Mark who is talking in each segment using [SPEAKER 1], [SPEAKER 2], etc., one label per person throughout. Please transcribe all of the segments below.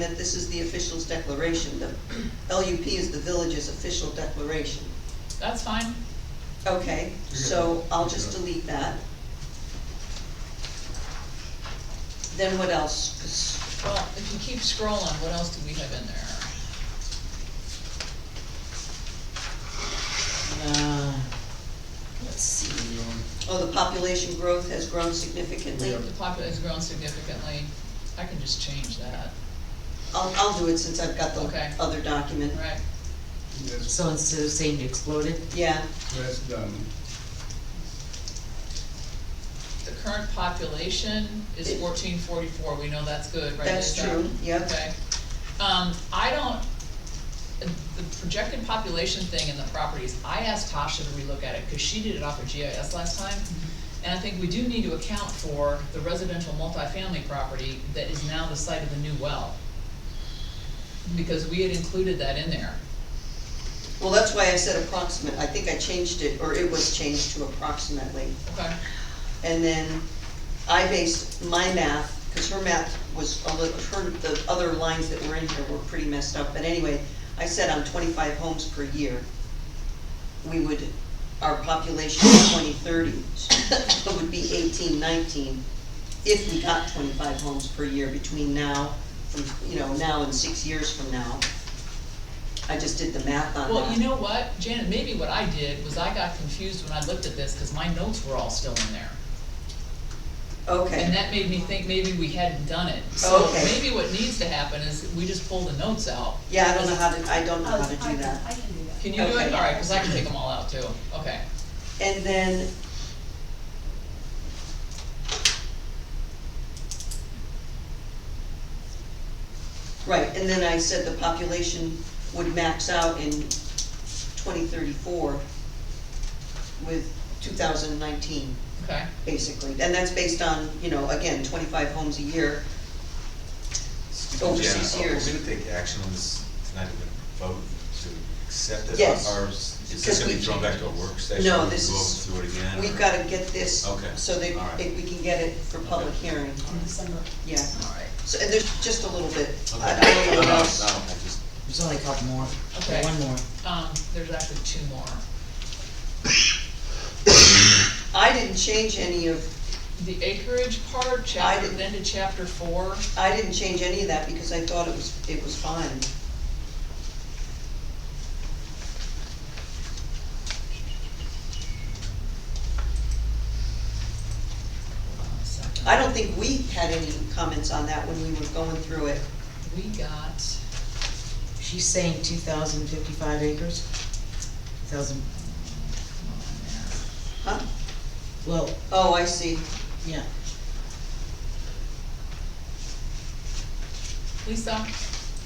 [SPEAKER 1] that this is the official's declaration, the LUP is the village's official declaration.
[SPEAKER 2] That's fine.
[SPEAKER 1] Okay, so I'll just delete that. Then what else? 'Cause-
[SPEAKER 2] Well, if you keep scrolling, what else do we have in there?
[SPEAKER 3] Uh, Let's see, um,
[SPEAKER 1] Oh, the population growth has grown significantly.
[SPEAKER 2] The population has grown significantly. I can just change that,
[SPEAKER 1] I'll, I'll do it since I've got
[SPEAKER 2] Okay.
[SPEAKER 1] the other document.
[SPEAKER 2] right?
[SPEAKER 4] That's,
[SPEAKER 3] so instead of saying exploded,
[SPEAKER 1] Yeah,
[SPEAKER 4] that's done.
[SPEAKER 2] The current population is
[SPEAKER 1] It-
[SPEAKER 2] fourteen forty-four. We know that's good, right? uh,
[SPEAKER 1] that's
[SPEAKER 2] Lisa?
[SPEAKER 1] true, yep.
[SPEAKER 2] Okay. Um, I don't, the projected population thing in the properties, I asked Tasha to relook at it, cause she did it off of GIS last time. And I think we do need to account for the residential multifamily property that is now the site of the new well. Because we had included that in there.
[SPEAKER 1] Well, that's why I said approximate, I think I changed it, or it was changed to approximately.
[SPEAKER 2] Okay.
[SPEAKER 1] And then I based my math, because her math was a little, her, the other lines that were in here were pretty messed up, but anyway, I said on twenty-five homes per year, we would, our population in twenty thirty would be eighteen, nineteen, if we got twenty-five homes per year between now, from, you know, now and six years from now. I just did the math on that.
[SPEAKER 2] Well, you know what, Janet, maybe what I did was I got confused when I looked at this, cause my notes were all still in there. And
[SPEAKER 1] Okay,
[SPEAKER 2] that made me think maybe we hadn't done it. So
[SPEAKER 1] Okay.
[SPEAKER 2] maybe what needs to happen is we just pull the notes out.
[SPEAKER 1] yeah, I don't know how to, I don't know how to
[SPEAKER 5] I
[SPEAKER 1] do
[SPEAKER 5] can-
[SPEAKER 1] that.
[SPEAKER 5] I can do that.
[SPEAKER 2] Can you do it?
[SPEAKER 1] Okay.
[SPEAKER 2] Alright, cause I can take them all out too. Okay.
[SPEAKER 1] And then. Right, and then I said the population would max out in twenty thirty-four with two thousand nineteen,
[SPEAKER 2] Okay,
[SPEAKER 1] basically. And that's based on, you know, again, twenty-five homes a year. Over
[SPEAKER 6] Janet,
[SPEAKER 1] six
[SPEAKER 6] are uh, we
[SPEAKER 1] years.
[SPEAKER 6] gonna take action on this tonight, we're gonna vote to accept it?
[SPEAKER 1] Yes.
[SPEAKER 6] Or is this
[SPEAKER 1] Because
[SPEAKER 6] gonna be
[SPEAKER 1] we-
[SPEAKER 6] thrown back to a work session?
[SPEAKER 1] No,
[SPEAKER 6] We can
[SPEAKER 1] this
[SPEAKER 6] Go
[SPEAKER 1] is-
[SPEAKER 6] through it again?
[SPEAKER 1] We've
[SPEAKER 6] or-
[SPEAKER 1] gotta get this,
[SPEAKER 6] Okay,
[SPEAKER 1] so that
[SPEAKER 6] all right.
[SPEAKER 1] it- we can get it for public hearing,
[SPEAKER 5] In December.
[SPEAKER 1] yeah.
[SPEAKER 2] alright,
[SPEAKER 1] So, and there's just a little bit,
[SPEAKER 6] Okay.
[SPEAKER 1] I I don't know what
[SPEAKER 6] No,
[SPEAKER 1] else.
[SPEAKER 6] no, I just-
[SPEAKER 3] there's only a couple more,
[SPEAKER 2] Okay.
[SPEAKER 3] one more.
[SPEAKER 2] um, there's actually two more.
[SPEAKER 1] I didn't change any of,
[SPEAKER 2] The acreage part,
[SPEAKER 1] I
[SPEAKER 2] chapter,
[SPEAKER 1] did-
[SPEAKER 2] then to chapter four,
[SPEAKER 1] I didn't change any of that because I thought it was, it was fine.
[SPEAKER 2] hold on a second.
[SPEAKER 1] I don't think we had any comments on that when we were going through it.
[SPEAKER 2] We got,
[SPEAKER 3] She's saying two thousand fifty-five acres, thousand,
[SPEAKER 2] come on there.
[SPEAKER 1] Huh?
[SPEAKER 3] well,
[SPEAKER 1] Oh, I see.
[SPEAKER 3] yeah,
[SPEAKER 2] Lisa,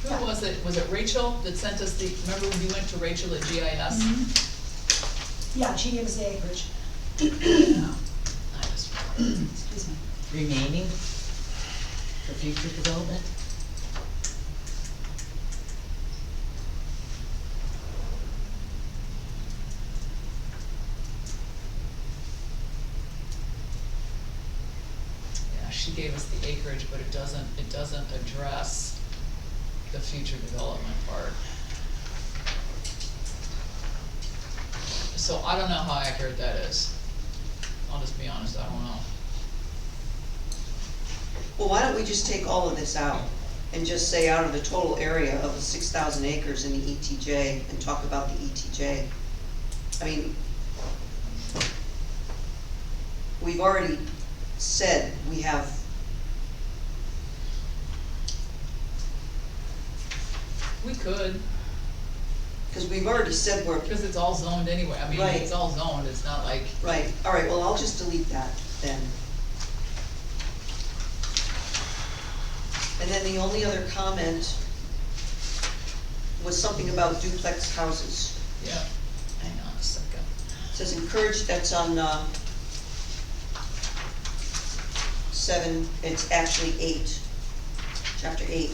[SPEAKER 5] Yeah.
[SPEAKER 2] who was it? Was it Rachel that sent us the, remember when you went to Rachel at GIS?
[SPEAKER 1] Mm-hmm.
[SPEAKER 5] Mm-hmm. Yeah, she gave us the acreage,
[SPEAKER 2] Yeah. I just,
[SPEAKER 5] excuse me.
[SPEAKER 3] remaining for future development.
[SPEAKER 2] yeah, she gave us the acreage, but it doesn't, it doesn't address the future development part. So I don't know how accurate that is. I'll just be honest, I don't know.
[SPEAKER 1] Well, why don't we just take all of this out and just say out of the total area of the six thousand acres in the ETJ and talk about the ETJ? I mean, we've already said we have.
[SPEAKER 2] We could,
[SPEAKER 1] Because we've already said we're,
[SPEAKER 2] because it's all zoned anyway, I mean,
[SPEAKER 1] Right.
[SPEAKER 2] it's all zoned, it's not like,
[SPEAKER 1] right, all right, well, I'll just delete that then. And then the only other comment was something about duplex houses.
[SPEAKER 2] yeah, hang on a second.
[SPEAKER 1] It Says encourage, that's on, uh, seven, it's actually eight, chapter eight,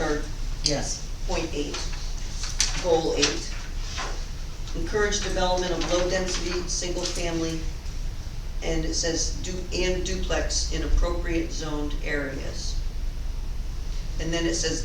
[SPEAKER 1] or
[SPEAKER 3] Yes,
[SPEAKER 1] point eight, goal eight. Encourage development of low-density, single-family, and it says du, and duplex in appropriate zoned areas. and then it says